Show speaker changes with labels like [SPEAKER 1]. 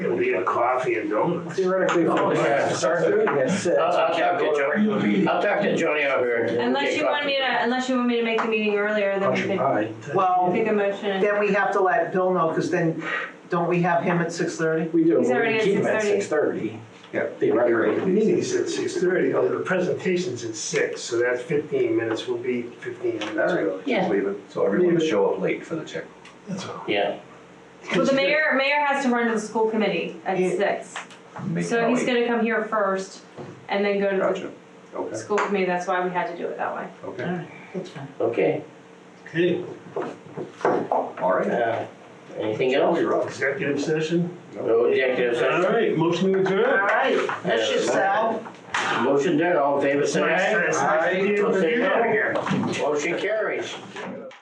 [SPEAKER 1] a coffee and donuts.
[SPEAKER 2] Theoretically, if
[SPEAKER 1] Oh,
[SPEAKER 2] we
[SPEAKER 1] yeah. Uh,
[SPEAKER 2] had start thirty at six.
[SPEAKER 1] I'll, I'll
[SPEAKER 2] we
[SPEAKER 1] talk
[SPEAKER 2] can't
[SPEAKER 1] to
[SPEAKER 2] go to a regular
[SPEAKER 1] Johnny,
[SPEAKER 2] meeting.
[SPEAKER 1] I'll talk to Johnny over here.
[SPEAKER 3] Unless you want me to, unless you want me to make the meeting earlier, then we could
[SPEAKER 2] Aye.
[SPEAKER 4] Well,
[SPEAKER 3] make a motion.
[SPEAKER 4] then we have to let Bill know, because then, don't we have him at six thirty?
[SPEAKER 2] We do,
[SPEAKER 3] He's
[SPEAKER 2] but
[SPEAKER 3] already
[SPEAKER 2] we
[SPEAKER 3] at
[SPEAKER 2] keep him at six thirty.
[SPEAKER 1] Yeah.
[SPEAKER 2] Theoretically.
[SPEAKER 1] Meeting's at six thirty, oh, the presentation's at six, so that's fifteen minutes, will be fifteen minutes early.
[SPEAKER 3] Yeah.
[SPEAKER 5] Leave it, so everyone will show up late for the check.
[SPEAKER 1] That's all.
[SPEAKER 6] Yeah,
[SPEAKER 3] Well, the mayor, mayor has to run to the school committee at
[SPEAKER 4] Yeah.
[SPEAKER 3] six,
[SPEAKER 5] Make
[SPEAKER 3] so
[SPEAKER 5] it
[SPEAKER 3] he's
[SPEAKER 5] late.
[SPEAKER 3] gonna come here first and then go to
[SPEAKER 5] Gotcha, okay,
[SPEAKER 3] the school committee, that's why we had to do it that way.
[SPEAKER 5] okay,
[SPEAKER 4] That's fine.
[SPEAKER 6] okay.
[SPEAKER 1] Okay,
[SPEAKER 5] all right.
[SPEAKER 6] Uh, Anything else?
[SPEAKER 1] executive session?
[SPEAKER 6] No executive
[SPEAKER 1] All
[SPEAKER 6] session.
[SPEAKER 1] right, motion to
[SPEAKER 4] All
[SPEAKER 1] adjourn.
[SPEAKER 4] right, that's yourself.
[SPEAKER 6] Uh, Motion done, all in favor, say
[SPEAKER 1] Nice,
[SPEAKER 6] aye.
[SPEAKER 1] nice, nice to be able to do that again.
[SPEAKER 6] Motion carries.